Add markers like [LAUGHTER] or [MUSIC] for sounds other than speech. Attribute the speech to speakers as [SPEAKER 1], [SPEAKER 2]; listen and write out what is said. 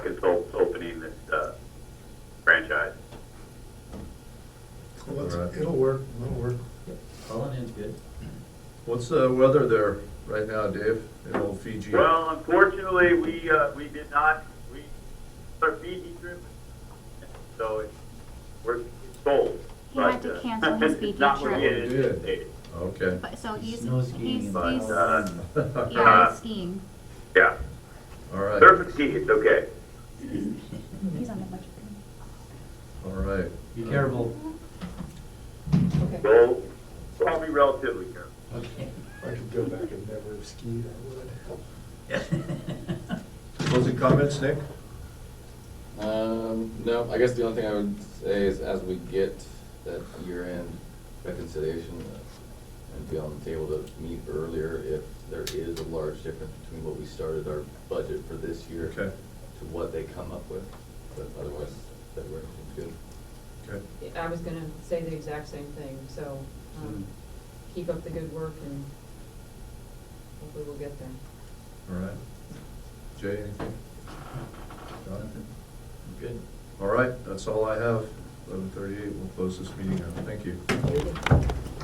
[SPEAKER 1] uh,
[SPEAKER 2] It'll work, it'll work.
[SPEAKER 3] Calling in's good.
[SPEAKER 4] What's the weather there right now, Dave, in old Fiji?
[SPEAKER 1] Well, unfortunately, we, uh, we did not, we, our Fiji trip, so it, we're it's sold.
[SPEAKER 5] He had
[SPEAKER 1] but,
[SPEAKER 5] to
[SPEAKER 1] uh,
[SPEAKER 5] cancel his
[SPEAKER 1] [LAUGHS]
[SPEAKER 5] Fiji
[SPEAKER 1] it's not what we
[SPEAKER 4] trip. Oh, he did.
[SPEAKER 1] anticipated.
[SPEAKER 4] Okay.
[SPEAKER 5] But, so Oh, he's,
[SPEAKER 3] Snow
[SPEAKER 5] he's,
[SPEAKER 3] skiing
[SPEAKER 5] he's,
[SPEAKER 3] and
[SPEAKER 1] But,
[SPEAKER 3] all.
[SPEAKER 1] uh,
[SPEAKER 5] yeah, he's skiing.
[SPEAKER 1] yeah,
[SPEAKER 4] [LAUGHS] All right, all
[SPEAKER 1] surf and ski, it's okay.
[SPEAKER 5] He's on the budget.
[SPEAKER 4] right.
[SPEAKER 3] Be careful.
[SPEAKER 1] We'll, we'll be relatively careful.
[SPEAKER 3] Okay.
[SPEAKER 2] If I could go back and never have skied, I would.
[SPEAKER 3] [LAUGHS]
[SPEAKER 4] Closing comments, Nick?
[SPEAKER 6] Um, no, I guess the only thing I would say is as we get that year-end reconciliation, uh, and be on the table to meet earlier if there is a large difference between what we started our budget for this year
[SPEAKER 4] Okay.
[SPEAKER 6] to what they come up with, but otherwise, February seems good.
[SPEAKER 4] Okay.
[SPEAKER 7] I was gonna say the exact same thing, so,
[SPEAKER 4] Mm-hmm.
[SPEAKER 7] um, keep up the good work and hopefully we'll get there.
[SPEAKER 4] All right. Jay, anything? John?
[SPEAKER 3] Good.
[SPEAKER 4] All right, that's all I have. Eleven thirty-eight, we'll close this meeting out. Thank you.